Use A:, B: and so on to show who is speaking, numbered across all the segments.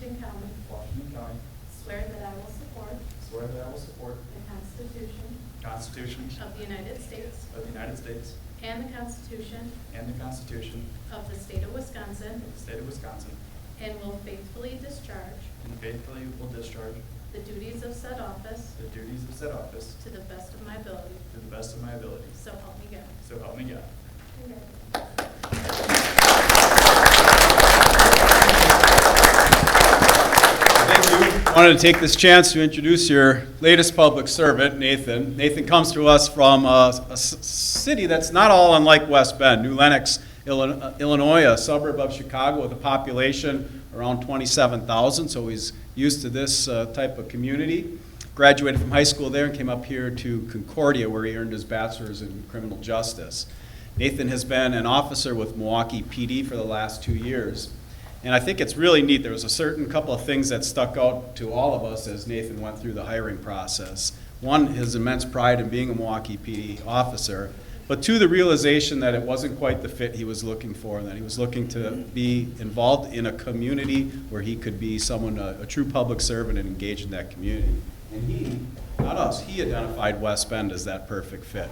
A: County,
B: Washington County,
A: swear that I will support
B: swear that I will support
A: the Constitution
B: the Constitution
A: of the United States
B: of the United States
A: and the Constitution
B: and the Constitution
A: of the State of Wisconsin,
B: of the State of Wisconsin,
A: and will faithfully discharge
B: and faithfully will discharge
A: the duties of said office
B: the duties of said office
A: to the best of my ability,
B: to the best of my abilities.
A: so help me God.
B: So help me God. I wanted to take this chance to introduce your latest public servant, Nathan. Nathan comes to us from a, a s- city that's not all unlike West Bend, New Lenox, Illi- uh, Illinois, a suburb of Chicago with a population around 27,000, so he's used to this uh, type of community. Graduated from high school there and came up here to Concordia, where he earned his bachelor's in criminal justice. Nathan has been an officer with Milwaukee PD for the last two years. And I think it's really neat. There was a certain couple of things that stuck out to all of us as Nathan went through the hiring process. One, his immense pride in being a Milwaukee PD officer, but two, the realization that it wasn't quite the fit he was looking for, and that he was looking to be involved in a community where he could be someone, a, a true public servant and engage in that community. And he, not us, he identified West Bend as that perfect fit.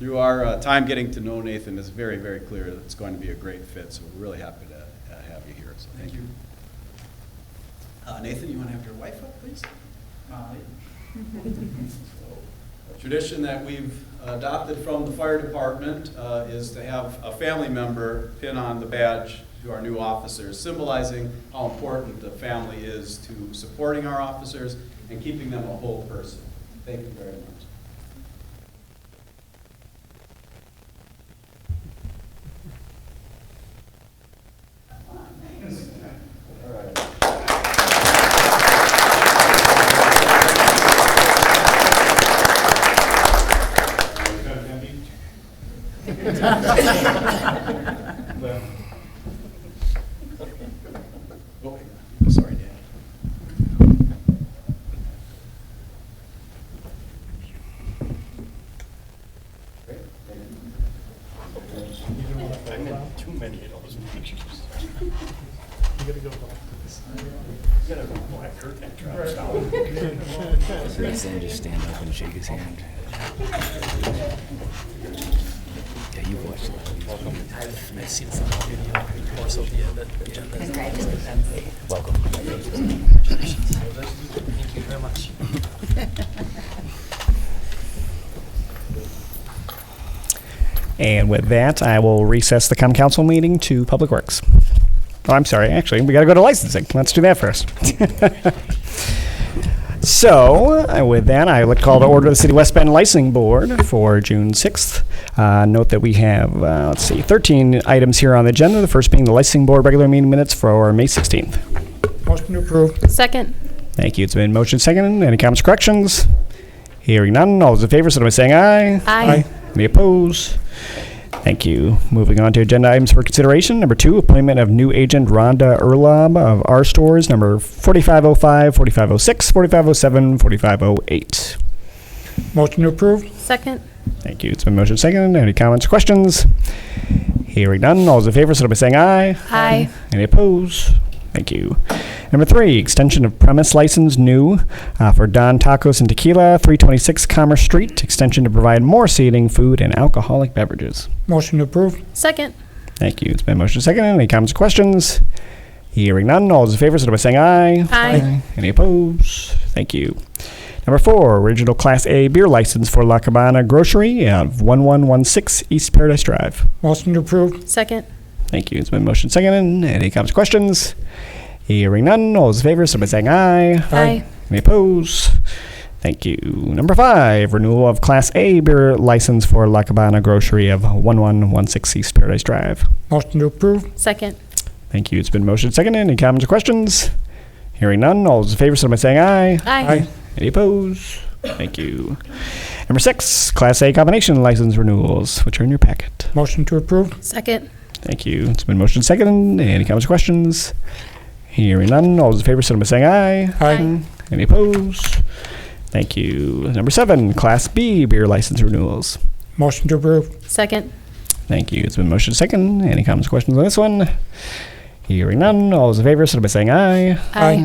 B: Through our uh, time getting to know Nathan, it's very, very clear that it's going to be a great fit, so we're really happy to uh, have you here, so thank you. Uh, Nathan, you want to have your wife up, please? Molly. So, A tradition that we've adopted from the fire department uh, is to have a family member pin on the badge to our new officers, symbolizing how important the family is to supporting our officers and keeping them a whole person. Thank you very much. All right. Oh, sorry, Dan.
C: I'm in too many of those pictures. You gotta go back to this. You gotta go back, hurt that drops down.
D: Let's then just stand up and shake his hand. Yeah, you've watched a lot of these.
E: I've, I've seen some of the video, more so the end, the end.
D: Welcome.
E: Thank you very much.
F: And with that, I will recess the common council meeting to Public Works. Oh, I'm sorry, actually, we gotta go to licensing. Let's do that first. So, uh, with that, I would call to order the City West Bend Licensing Board for June 6th. Uh, Note that we have, uh, let's see, 13 items here on the agenda, the first being the Licensing Board regular meeting minutes for May 16th.
C: Motion to approve.
G: Second.
F: Thank you. It's been motion second. Any comments, corrections? Hearing none. All those in favor, signify by saying aye.
G: Aye. Aye.
F: Any opposed? Thank you. Moving on to agenda items for consideration. Number two, appointment of new agent Rhonda Erlob of R Stores, number 4505, 4506, 4507, 4508.
C: Motion to approve.
G: Second.
F: Thank you. It's been motion second. Any comments, questions? Hearing none. All those in favor, signify by saying aye.
G: Aye.
F: Any opposed? Thank you. Number three, extension of premise license new uh, for Don Tacos and Tequila, 326 Commerce Street, extension to provide more seating, food, and alcoholic beverages.
C: Motion to approve.
G: Second.
F: Thank you. It's been motion second. Any comments or questions? Hearing none, all those in favor, signify by saying aye.
G: Aye.
F: Any opposed? Thank you. Number four, original Class A beer license for La Cabana Grocery of 1116 East Paradise Drive.
C: Motion to approve.
G: Second.
F: Thank you. It's been motion second. Any comments, or questions? Hearing none, all those in favor, signify by saying aye.
G: Aye.
F: Any opposed? Thank you. Number five, renewal of Class A beer license for La Cabana Grocery of 1116 East Paradise Drive.
C: Motion to approve.
G: Second.
F: Thank you. It's been motion second. Any comments or questions? Hearing none, all those in favor, signify by saying aye.
G: Aye.
F: Any opposed? Thank you. Number six, Class A combination license renewals, which are in your packet.
C: Motion to approve.
G: Second.
F: Thank you. It's been motion second. Any comments or questions? Hearing none, all those in favor, signify by saying aye.
G: Aye.
F: Any opposed? Thank you. Number seven, Class B beer license renewals.
C: Motion to approve.
G: Second.
F: Thank you. It's been motion second. Any comments, or questions on this one? Hearing none. All those in favor, signify by saying aye.
C: Aye.